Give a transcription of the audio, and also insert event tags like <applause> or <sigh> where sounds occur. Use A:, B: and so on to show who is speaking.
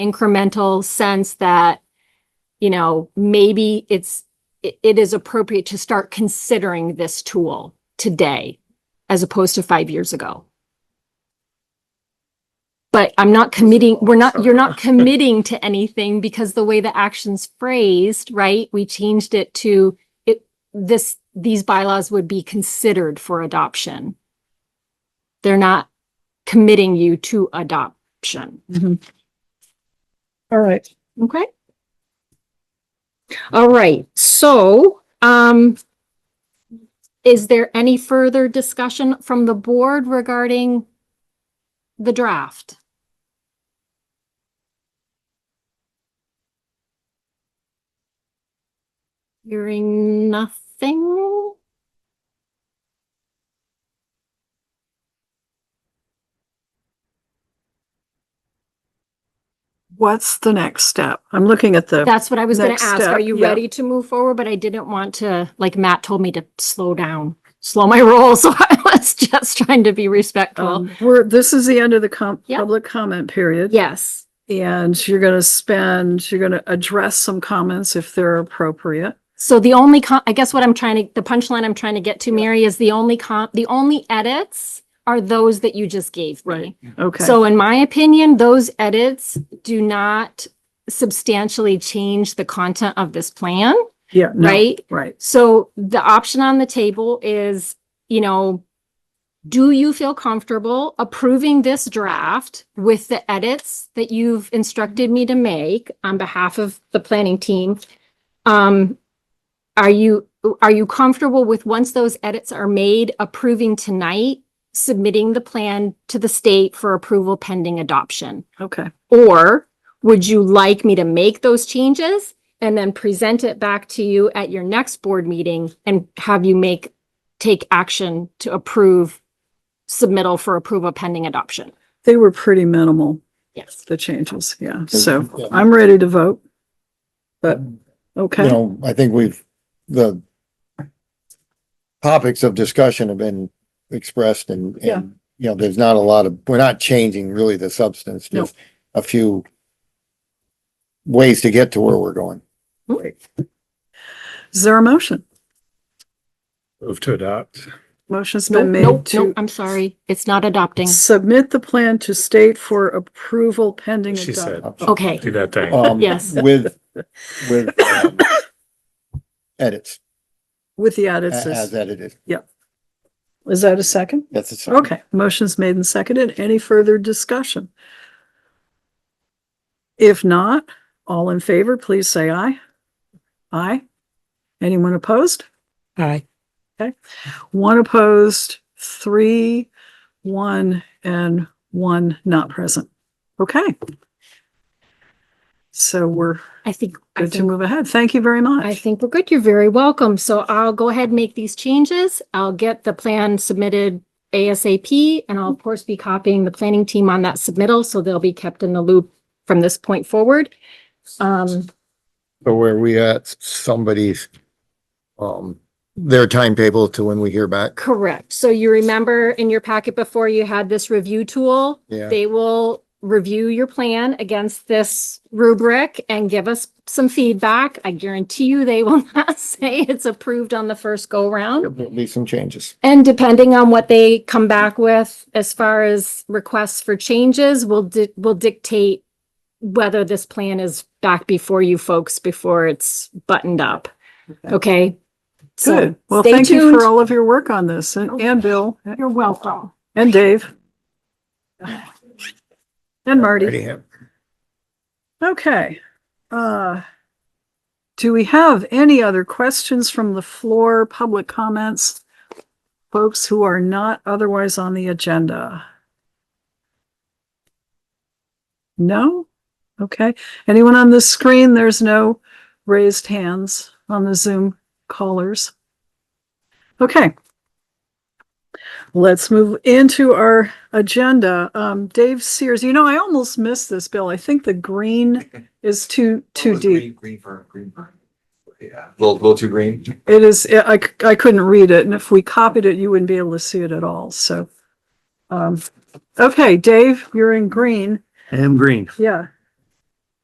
A: incremental sense that, you know, maybe it's, it, it is appropriate to start considering this tool today as opposed to five years ago. But I'm not committing, we're not, you're not committing to anything because the way the action's phrased, right? We changed it to it, this, these bylaws would be considered for adoption. They're not committing you to adoption.
B: All right.
A: Okay. All right, so, um, is there any further discussion from the board regarding the draft? Hearing nothing?
B: What's the next step? I'm looking at the,
A: That's what I was gonna
B: Next
A: ask.
B: step,
A: Are you
B: yeah.
A: ready to move forward? But I didn't want to, like Matt told me to slow down, slow my <laughs> roll, so I was just trying to be respectful.
B: um, we're, this is the end of the com,
A: Yeah.
B: public comment period.
A: Yes,
B: And you're gonna spend, you're gonna address some comments if they're appropriate.
A: so the only con, I guess what I'm trying to, the punchline I'm trying to get to, Mary, is the only con, the only edits are those that you just gave me.
B: Okay.
A: So in my opinion, those edits do not substantially change the content of this plan,
B: Yeah, no,
A: right?
B: right.
A: So the option on the table is, you know, do you feel comfortable approving this draft with the edits that you've instructed me to make on behalf of the planning team? Um, are you, are you comfortable with, once those edits are made, approving tonight, submitting the plan to the state for approval pending adoption?
B: Okay.
A: Or would you like me to make those changes and then present it back to you at your next board meeting and have you make, take action to approve submittal for approval pending adoption?
B: They were pretty minimal,
A: Yes.
B: the changes. Yeah. So
C: Yeah.
B: I'm ready to vote. But,
C: you
B: okay,
C: know, I think we've, the topics of discussion have been expressed and,
B: Yeah.
C: and, you know, there's not a lot of, we're not changing really the substance,
B: No.
C: just a few ways to get to where we're going.
B: is there a motion?
D: Move to adopt.
B: Motion's
A: No,
B: been
A: no,
B: made
A: no,
B: to
A: I'm sorry. It's not adopting.
B: submit the plan to state for approval pending.
D: She said.
B: adopt-
A: Okay,
D: Do that thing.
C: Um,
A: Yes.
C: With,
B: <coughs>
C: with um, edits,
B: With the
C: a-
B: edits.
C: as
B: Is
C: edited.
B: is that a second?
C: That's it.
B: Okay, motion's made and seconded. Any further discussion? If not, all in favor, please say aye. Aye. Anyone opposed?
E: Aye.
B: One opposed, three, one, and one not present. Okay. So we're
A: I think, I
B: good to
A: think,
B: move ahead. Thank you very much.
A: I think we're good. You're very welcome. So I'll go ahead and make these changes. I'll get the plan submitted ASAP and I'll of course be copying the planning team on that submittal, so they'll be kept in the loop from this point forward. Um,
C: So where we at, somebody's, um, their timetable to when we hear back.
A: Correct. So you remember in your packet before you had this review tool?
C: Yeah,
A: They will review your plan against this rubric and give us some feedback. I guarantee you they will <laughs> not say it's approved on the first go round.
C: there'll be some changes.
A: And depending on what they come back with as far as requests for changes will di- will dictate whether this plan is back before you folks before it's buttoned up.
B: Okay.
A: Okay? So
B: Good. Well,
A: stay
B: thank you
A: tuned. Oh,
B: for all of your work on this and, and Bill
A: You're welcome.
B: and Dave. And Marty.
C: Already have.
B: Okay, uh. Do we have any other questions from the floor, public comments? Folks who are not otherwise on the agenda? No? Okay, anyone on the screen? There's no raised hands on the Zoom callers. Okay. Let's move into our agenda. Um, Dave Sears, you know, I almost missed this, Bill. I think the green is too, too deep.
F: Oh, Green for, green for. Yeah, a little, little too green.
B: It is, I, I couldn't read it, and if we copied it, you wouldn't be able to see it at all, so. Um, okay, Dave, you're in green.
D: I am green.
B: Yeah,